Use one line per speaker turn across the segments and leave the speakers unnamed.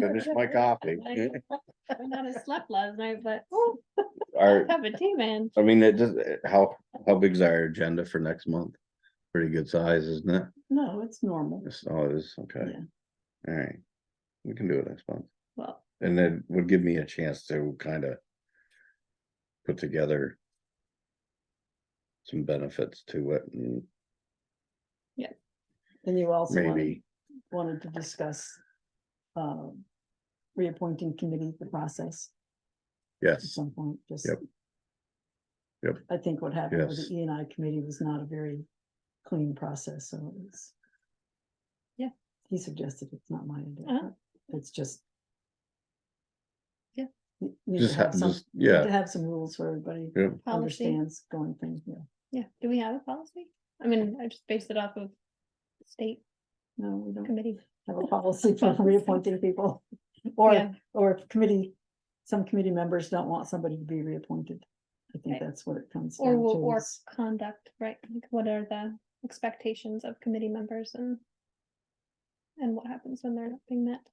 finish my coffee.
I might have slept last night, but oh,
Our,
have a tea, man.
I mean, it just, how, how big's our agenda for next month? Pretty good size, isn't it?
No, it's normal.
It's always, okay. Alright, we can do it next month.
Well,
And then would give me a chance to kind of. Put together. Some benefits to it and
And you also wanted-
maybe,
wanted to discuss um, reappointing committee, the process at
yes,
some point, just.
Yep. Yep.
I think what happened with
Yes.
the E and I committee was not a very clean process, so it was.
Yeah.
He suggested it's not my idea,
Uh-huh.
but it's just.
Yeah.
You- you
just,
should
ha-
have some,
just,
you need
yeah,
to have some rules for everybody
yeah,
policy,
understands going things, yeah.
yeah. Do we have a policy? I mean, I just based it off of state
No, we don't
committee.
have a policy for reappointing people or
Yeah,
Or if committee, some committee members don't want somebody to be reappointed. I think
Right.
that's what it comes down
Or, will-
to.
or
is-
conduct, right? Like what are the expectations of committee members and and what happens when they're not being met?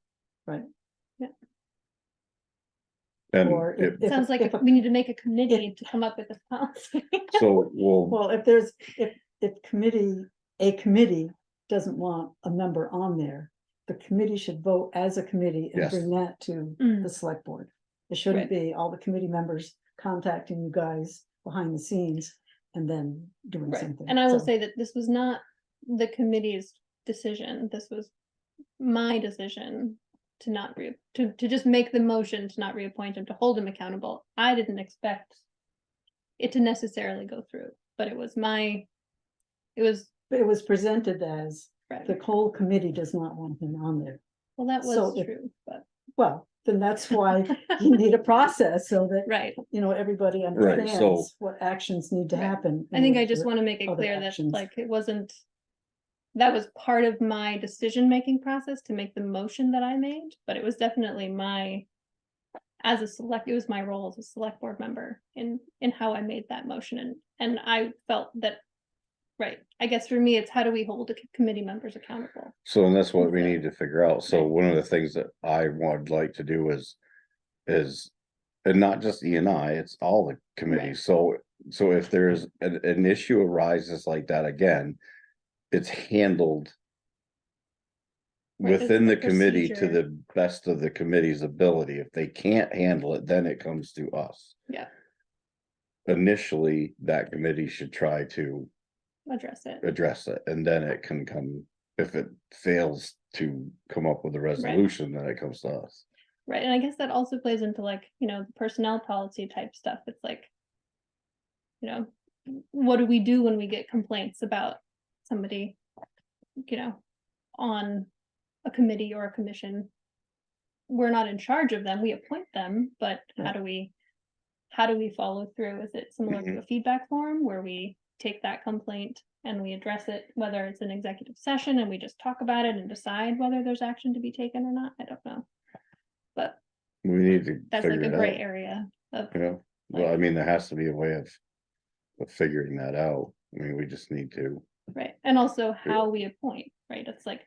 and
Or if-
it-
if-
Sounds like
if a-
we need to make a committee to come up with this policy.
so we'll,
Well, if there's, if, if committee, a committee doesn't want a member on there, the committee should vote as a committee and
Yes.
bring that to
Mm,
the select board. It shouldn't be all the committee members contacting you guys behind the scenes and then doing
Right.
something.
And I will
So,
say that this was not the committee's decision. This was my decision to not re, to, to just make the motion to not reappoint him, to hold him accountable. I didn't expect it to necessarily go through, but it was my, it was,
But it was presented as the
well,
whole committee does not want him on there.
that
so
was
if-
true, but,
Well, then that's why you need a process so that
right.
you know, everybody
so-
understands what actions need to
Right.
happen.
I
in
think I
order
just
for-
want to make it
other
clear that
actions.
like it wasn't. That was part of my decision-making process to make the motion that I made, but it was definitely my. As a select, it was my role as a select board member in in how I made that motion and and I felt that. Right, I guess for me, it's how do we hold the c- committee members accountable?
so and that's what we
Okay.
need to figure out, so
Right.
one of the things that I would like to do is. Is, and not just E and I, it's all the committees, so, so if there's an, an issue arises like that again. It's handled
Right, there's
within the
a
committee to
procedure.
the best of the committee's ability. If they can't handle it, then it comes to us.
Yeah.
Initially, that committee should try to
Address it,
address it, and then it can come, if it fails to come up with a resolution, then it comes to us.
right? And I guess that also plays into like, you know, personnel policy type stuff. It's like. you know, what do we do when we get complaints about somebody, you know, on a committee or a commission? We're not in charge of them, we appoint them, but how
Right.
do we, how do we follow through? Is it similar
Mm-hmm.
to a feedback form where we take that complaint and we address it, whether it's an executive session and we just talk about it and decide whether there's action to be taken or not? I don't know. But
We need to
that's like
figure
a
it
gray
out,
area of,
you know, well, I mean, there has to be a way of. Of figuring that out, I mean, we just need to,
Right, and also how we appoint, right? It's like,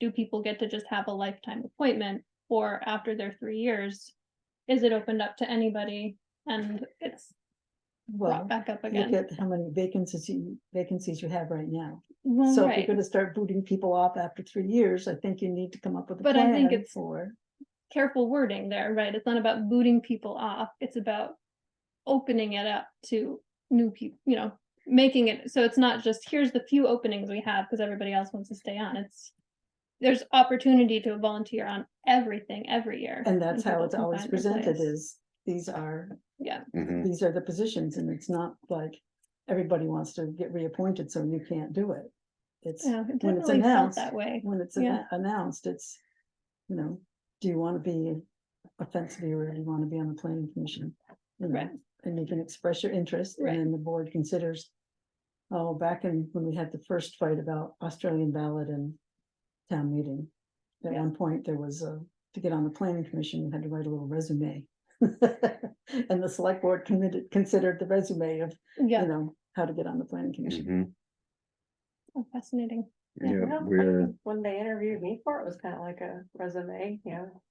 do people get to just have a lifetime appointment? Or after their three years, is it opened up to anybody and it's brought
Well,
back up
look
again?
at how many vacancies you, vacancies you have right now.
Well,
So if you're
right,
gonna start booting people off after three years, I think you need to come up with a
But I think
plan
it's-
for.
careful wording there, right? It's not about booting people off, it's about opening it up to new people, you know, making it, so it's not just, here's the few openings we have because everybody else wants to stay on, it's there's opportunity to volunteer on everything every year.
And that's how
people
it's
can
always
find their
presented
place. Mm.
is, these are,
Yeah.
Mhm.
these are the positions and it's not like everybody wants to get reappointed, so you can't do it. It's,
Yeah, it
when it's
definitely felt
announced,
that way.
when it's
Yeah.
anno- announced, it's, you know, do you want to be a fence viewer? Do you want to be on the planning commission? You know,
Right.
And you can express your interest and
Right.
then the board considers. Oh, back in, when we had the first fight about Australian ballot and town meeting. At
Yeah.
one point, there was a, to get on the planning commission, you had to write a little resume. And the select board committed, considered the resume of, you
Yeah,
know, how to get on the planning commission.
Mhm.
oh, fascinating.
Yeah,
Well, I
we're,
mean, When they interviewed me for it, it was kind of like a resume, you know,